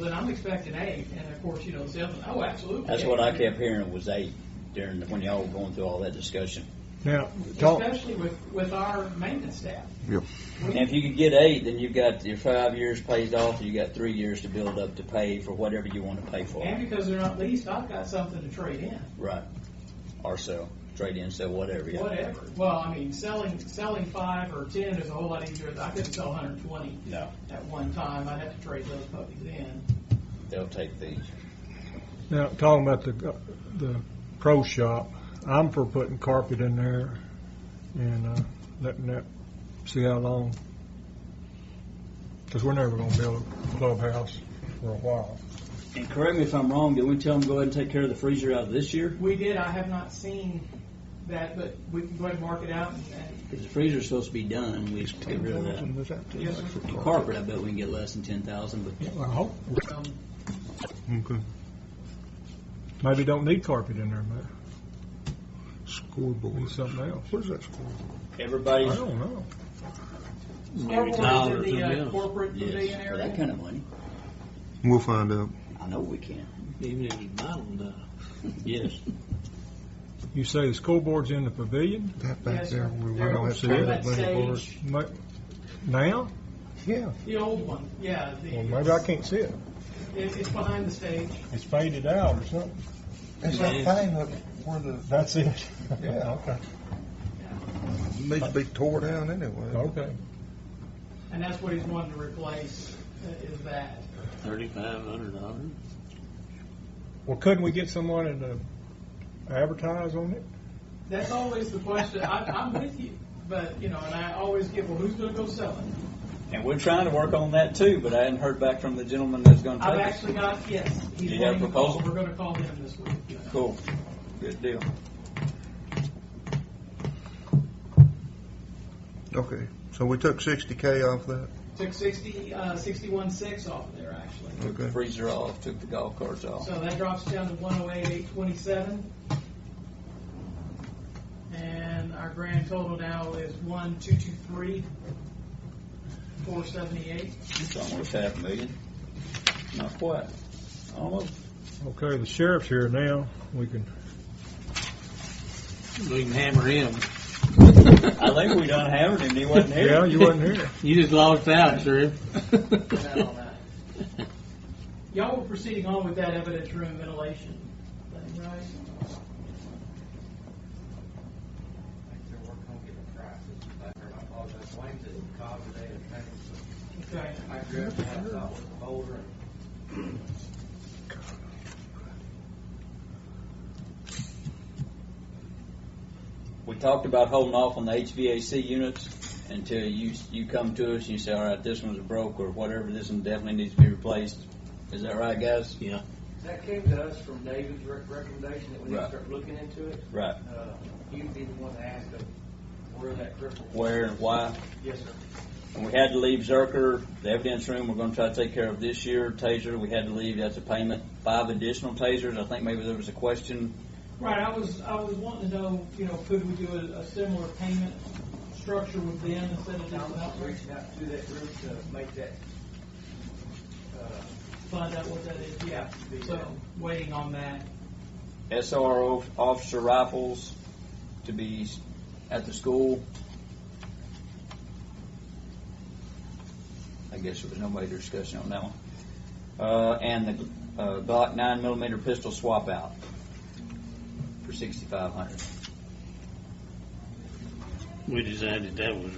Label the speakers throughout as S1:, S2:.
S1: Then I'm expecting eight, and of course, you know, seven, oh, absolutely.
S2: That's what I kept hearing was eight during, the- when y'all were going through all that discussion.
S3: Now, talk,
S1: Especially with, with our maintenance staff.
S4: Yep.
S2: And if you could get eight, then you've got your five years paid off, and you got three years to build up to pay for whatever you want to pay for.
S1: And because they're not leased, I've got something to trade in.
S2: Right. Or sell, trade in, sell, whatever, yeah.
S1: Whatever. Well, I mean, selling, selling five or ten is a whole lot easier. I couldn't sell hundred and twenty
S2: No,
S1: at one time. I'd have to trade those puppies in.
S2: they'll take these.
S3: now, talking about the, uh, the pro shop, I'm for putting carpet in there and, uh, letting that, see how long. Cause we're never gonna build a clubhouse for a while.
S2: And correct me if I'm wrong, did we tell them go ahead and take care of the freezer out of this year?
S1: We did, I have not seen that, but we can go ahead and mark it out and- and,
S2: Because the freezer's supposed to be done, we just get rid of that.
S3: Was that too
S1: Yes,
S3: much
S1: sir.
S3: for
S2: And
S3: carpet?
S2: Carpet, I bet we can get less than ten thousand, but
S3: Yeah, I hope.
S1: um,
S3: Okay. Maybe don't need carpet in there, man. Scoreboard. Something else. What is that scoreboard?
S2: everybody's.
S3: I don't know.
S1: scoreboard in the uh, corporate pavilion
S2: Yes, for that
S1: area.
S2: kind of money.
S4: We'll find out.
S2: I know we can.
S5: Even if you buy them, though.
S2: Yes.
S3: You say the scoreboard's in the pavilion?
S4: That back
S1: Yes,
S4: there
S1: sir.
S4: where we
S1: There
S4: don't
S1: was
S4: have to
S1: very
S4: have
S1: much
S4: many boards.
S1: sage.
S3: Ma- Now?
S4: Yeah,
S1: The old one, yeah. the-
S3: Well, maybe I can't see it.
S1: It, it's behind the stage.
S3: It's faded out or something.
S4: it's that thing up where the,
S3: That's it.
S4: Yeah,
S3: okay.
S4: needs to be tore down anyway.
S3: Okay.
S1: And that's what he's wanting to replace, uh, is that.
S5: Thirty-five hundred dollars.
S3: Well, couldn't we get someone to advertise on it?
S1: That's always the question. I, I'm with you, but, you know, and I always get, well, who's gonna go sell it?
S2: And we're trying to work on that too, but I hadn't heard back from the gentleman that's going to
S1: I've
S2: take it.
S1: actually got, yes. he's
S2: Do you have a
S1: wanting to call.
S2: proposal?
S1: We're gonna call him this week.
S2: Cool. Good deal.
S4: Okay, so we took sixty K off that,
S1: Took sixty, uh, sixty-one six off of there, actually.
S2: Took the
S4: Okay.
S2: freezer off, took the golf carts off.
S1: So that drops down to one oh eight, eight twenty-seven. And our grand total now is one, two, two, three, four seventy-eight.
S2: It's almost half a million. Not quite. Almost.
S3: Okay, the sheriff's here now. We can,
S5: We can hammer him.
S2: I think we done hammered him. He wasn't here.
S3: yeah, you wasn't here.
S5: You just lost out, sir.
S1: Without all that. Y'all were proceeding on with that evidence room ventilation thing, right?
S6: They're working on getting a price, it's back there, I apologize, Wayne's at the call today, and I-
S1: Okay.
S6: I grabbed that, I thought was a boulder, and
S2: We talked about holding off on the HVAC units until you, you come to us and you say, all right, this one's broke or whatever, this one definitely needs to be replaced. Is that right, guys?
S5: Yeah.
S6: that came to us from David's rec- recommendation that we need
S2: Right.
S6: to start looking into it.
S2: Right.
S6: Uh, He'd be the one to ask us where that cripple.
S2: Where and why?
S6: Yes, sir.
S2: And we had to leave Zerker, the evidence room, we're gonna try to take care of this year. Taser, we had to leave, that's a payment. Five additional tasers, I think maybe there was a question.
S1: Right, I was, I was wanting to know, you know, could we do a, a similar payment structure with them instead of
S6: Now,
S1: just an
S6: I'm
S1: outreach?
S6: reaching out to that group to make that, uh,
S1: Find out what that is, yeah, so, waiting on that.
S2: SRO officer rifles to be s- at the school. I guess there was no major discussion on that one. Uh, and the uh, Glock nine millimeter pistol swap out for sixty-five hundred.
S5: We decided that was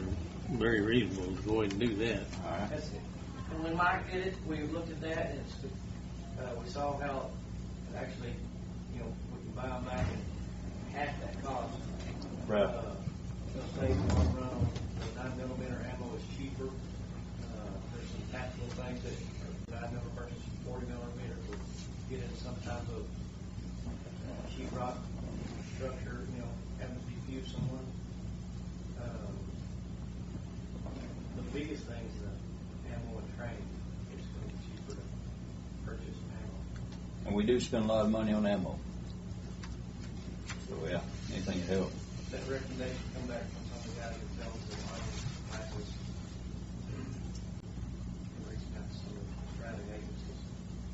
S5: very reasonable to go ahead and do that.
S2: All right.
S6: That's it. And when Mike did it, we looked at that and it's, uh, we saw how it actually, you know, we can buy them back at half that cost.
S2: Right.
S6: Uh, It'll save the long run on the nine millimeter ammo is cheaper. Uh, There's some tactical things that are nine millimeter versus forty millimeter would get in some type of uh, sheet rock structure, you know, having to defuse someone. Um, The biggest thing is the ammo and training. It's going to be cheaper to purchase ammo.
S2: And we do spend a lot of money on ammo. So, yeah, anything to help.
S6: That recommendation come back from